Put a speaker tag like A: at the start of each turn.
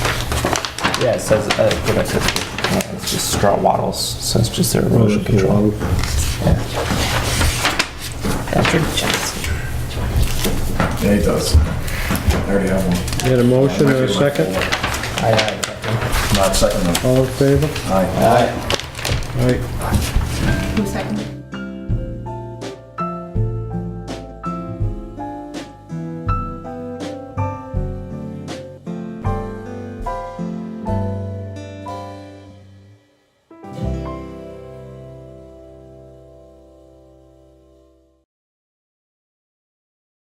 A: Yeah, it says, uh, what it says, yeah, it's just straw wattles, so it's just their erosion control. Yeah.
B: Yeah, he does. I already have one.
C: Need a motion or a second?
A: I, uh,
B: Not second one.
C: All in favor?
B: Aye.
C: Aye.
D: Who seconded?